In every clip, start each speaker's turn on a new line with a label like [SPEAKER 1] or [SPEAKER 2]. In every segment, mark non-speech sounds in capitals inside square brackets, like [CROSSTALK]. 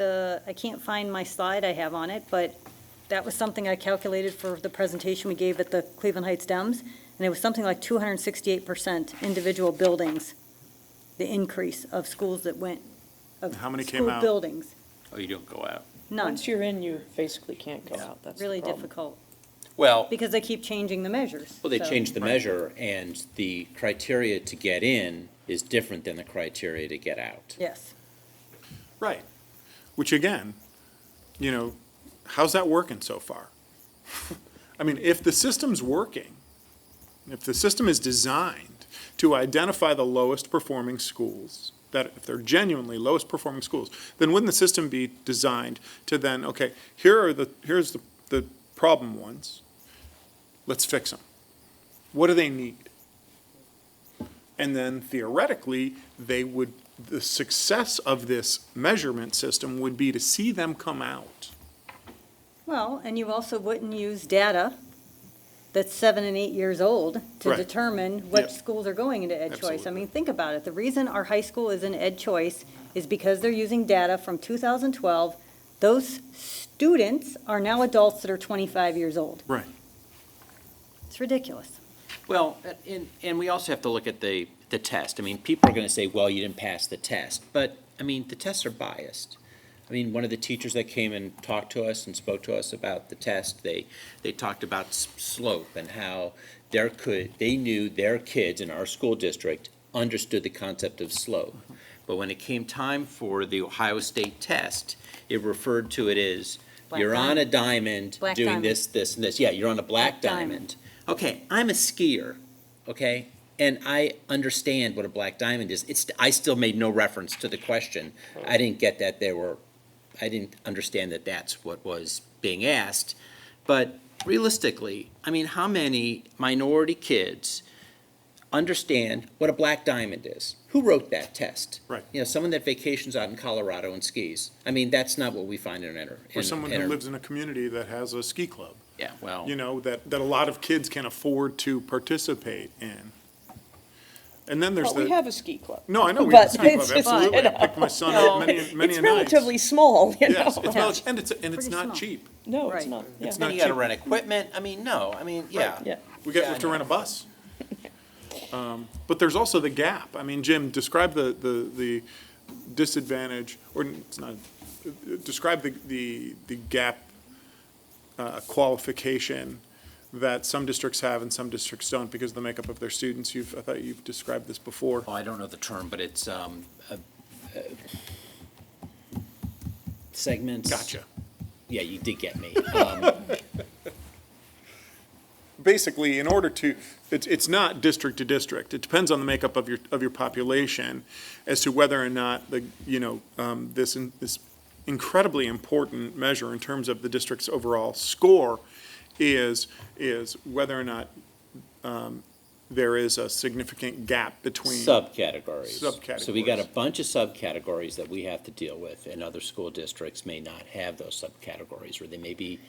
[SPEAKER 1] the, I can't find my slide I have on it, but that was something I calculated for the presentation we gave at the Cleveland Heights Dems, and it was something like 268% individual buildings, the increase of schools that went, of
[SPEAKER 2] How many came
[SPEAKER 1] school
[SPEAKER 2] out?
[SPEAKER 1] buildings.
[SPEAKER 3] Oh, you don't go out.
[SPEAKER 1] None.
[SPEAKER 4] Once you're in, you basically can't go out, that's the
[SPEAKER 1] Really
[SPEAKER 4] problem.
[SPEAKER 1] difficult,
[SPEAKER 3] Well,
[SPEAKER 1] because they keep changing the measures.
[SPEAKER 5] Well, they
[SPEAKER 1] so-
[SPEAKER 5] changed the
[SPEAKER 2] Right.
[SPEAKER 5] measure, and the criteria to get in is different than the criteria to get out.
[SPEAKER 1] Yes.
[SPEAKER 2] Right. Which again, you know, how's that working so far? [LAUGHS] I mean, if the system's working, if the system is designed to identify the lowest performing schools, that if they're genuinely lowest performing schools, then wouldn't the system be designed to then, okay, here are the, here's the, the problem ones, let's fix them. What do they need? And then theoretically, they would, the success of this measurement system would be to see them come out.
[SPEAKER 1] Well, and you also wouldn't use data that's seven and eight years old to
[SPEAKER 2] Right.
[SPEAKER 1] determine what
[SPEAKER 2] Yep.
[SPEAKER 1] schools are going into ed choice. I
[SPEAKER 2] Absolutely.
[SPEAKER 1] mean, think about it. The reason our high school is in ed choice is because they're using data from 2012. Those students are now adults that are 25 years old.
[SPEAKER 2] Right.
[SPEAKER 1] It's ridiculous.
[SPEAKER 5] Well, and, and we also have to look at the, the test. I mean, people are gonna say, well, you didn't pass the test, but, I mean, the tests are biased. I mean, one of the teachers that came and talked to us and spoke to us about the test, they, they talked about s- slope and how their could, they knew their kids in our school district understood the concept of slope. But when it came time for the Ohio State test, it referred to it as,
[SPEAKER 1] Black
[SPEAKER 5] you're on a
[SPEAKER 1] diamond.
[SPEAKER 5] diamond,
[SPEAKER 1] Black
[SPEAKER 5] doing
[SPEAKER 1] diamond.
[SPEAKER 5] this, this, and this. Yeah, you're on a
[SPEAKER 1] Black
[SPEAKER 5] black
[SPEAKER 1] diamond.
[SPEAKER 5] diamond. Okay, I'm a skier, okay? And I understand what a black diamond is. It's, I still made no reference to the question. I didn't get that there were, I didn't understand that that's what was being asked. But realistically, I mean, how many minority kids understand what a black diamond is? Who wrote that test?
[SPEAKER 2] Right.
[SPEAKER 5] You know, someone that vacations out in Colorado and skis. I mean, that's not what we find in our.
[SPEAKER 2] Or someone
[SPEAKER 5] in
[SPEAKER 2] who
[SPEAKER 5] our-
[SPEAKER 2] lives in a community that has a ski club,
[SPEAKER 5] Yeah, well.
[SPEAKER 2] you know, that, that a lot of kids can afford to participate in. And then there's
[SPEAKER 4] But we
[SPEAKER 2] the,
[SPEAKER 4] have a ski club.
[SPEAKER 2] no, I know, we have a
[SPEAKER 4] But
[SPEAKER 2] ski club,
[SPEAKER 4] it's just,
[SPEAKER 2] absolutely.
[SPEAKER 4] [LAUGHS] you
[SPEAKER 2] I picked my son
[SPEAKER 4] know,
[SPEAKER 2] up many, many
[SPEAKER 4] It's
[SPEAKER 2] a night.
[SPEAKER 4] relatively small, you
[SPEAKER 2] Yes, it's,
[SPEAKER 4] know?
[SPEAKER 2] rel-
[SPEAKER 4] [LAUGHS]
[SPEAKER 2] [LAUGHS] and it's, and it's
[SPEAKER 1] Pretty
[SPEAKER 2] not
[SPEAKER 1] small.
[SPEAKER 2] cheap.
[SPEAKER 4] No, it's
[SPEAKER 1] Right.
[SPEAKER 4] not, yeah,
[SPEAKER 2] It's
[SPEAKER 5] Then
[SPEAKER 2] not
[SPEAKER 5] you gotta
[SPEAKER 2] cheap.
[SPEAKER 5] rent equipment, I mean, no, I mean, yeah.
[SPEAKER 4] yeah.
[SPEAKER 2] We got,
[SPEAKER 5] Yeah,
[SPEAKER 2] we
[SPEAKER 5] I
[SPEAKER 2] have to
[SPEAKER 5] know.
[SPEAKER 2] rent a bus. [LAUGHS] Um, But there's also the gap. I mean, Jim, describe the, the, the disadvantage, or it's not, describe the, the, the gap uh, qualification that some districts have and some districts don't because of the makeup of their students. You've, I thought you've described this before.
[SPEAKER 5] Oh, I don't know the term, but it's, um, uh, uh, segments.
[SPEAKER 2] Gotcha.
[SPEAKER 5] Yeah, you did
[SPEAKER 2] [LAUGHS]
[SPEAKER 5] get me. Um,
[SPEAKER 2] basically, in order to, it's, it's not district to district. It depends on the makeup of your, of your population as to whether or not the, you know, um, this, in- this incredibly important measure in terms of the district's overall score is, is whether or not, um, there is a significant gap between.
[SPEAKER 5] Subcategories. So we got a
[SPEAKER 2] Subcategories.
[SPEAKER 5] bunch of subcategories that we have to deal with, and other school districts may not have those subcategories, or they may be,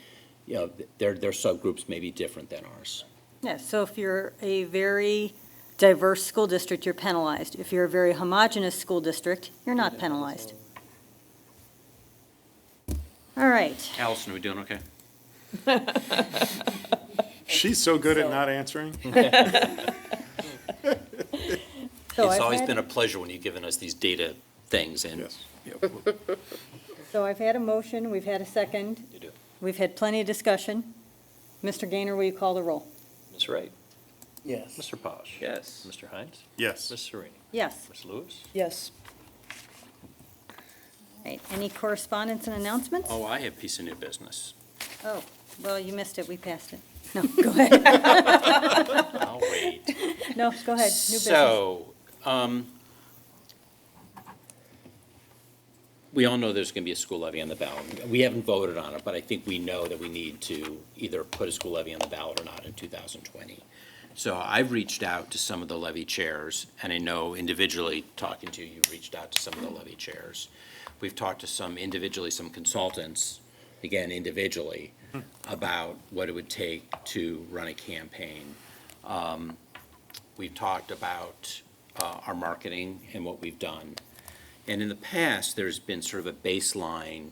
[SPEAKER 5] you know, th- their, their subgroups may be different than ours.
[SPEAKER 1] Yeah, so if you're a very diverse school district, you're penalized. If you're a very homogeneous school district, you're not penalized. All right.
[SPEAKER 3] Allison, are we doing okay?
[SPEAKER 2] She's so good at not answering.
[SPEAKER 1] So
[SPEAKER 5] It's
[SPEAKER 1] I've
[SPEAKER 5] always
[SPEAKER 1] had-
[SPEAKER 5] been a pleasure when you've given us these data things, and
[SPEAKER 2] Yes.
[SPEAKER 1] So I've had a motion, we've had a second.
[SPEAKER 5] You do.
[SPEAKER 1] We've had plenty of discussion. Mr. Gaynor, will you call the roll?
[SPEAKER 3] Ms. Wright?
[SPEAKER 4] Yes.
[SPEAKER 3] Mr. Posh?
[SPEAKER 5] Yes.
[SPEAKER 3] Mr. Hines? Ms.
[SPEAKER 2] Yes.
[SPEAKER 3] Serena?
[SPEAKER 1] Yes.
[SPEAKER 3] Ms. Lewis?
[SPEAKER 4] Yes,
[SPEAKER 1] Right, any correspondence and announcements?
[SPEAKER 3] Oh, I have piece of new business.
[SPEAKER 1] Oh, well, you missed it, we passed it. No, go ahead. [LAUGHS]
[SPEAKER 3] I'll wait.
[SPEAKER 1] No, go ahead, new business.
[SPEAKER 3] So, um,
[SPEAKER 5] we all know there's going to be a school levy on the ballot. We haven't voted on it, but I think we know that we need to either put a school levy on the ballot or not in 2020. So I've reached out to some of the levy chairs, and I know individually, talking to you, you've reached out to some of the levy chairs. We've talked to some individually, some consultants, again individually, about what it would take to run a campaign. Um, We've talked about uh, our marketing and what we've done. And in the past, there's been sort of a baseline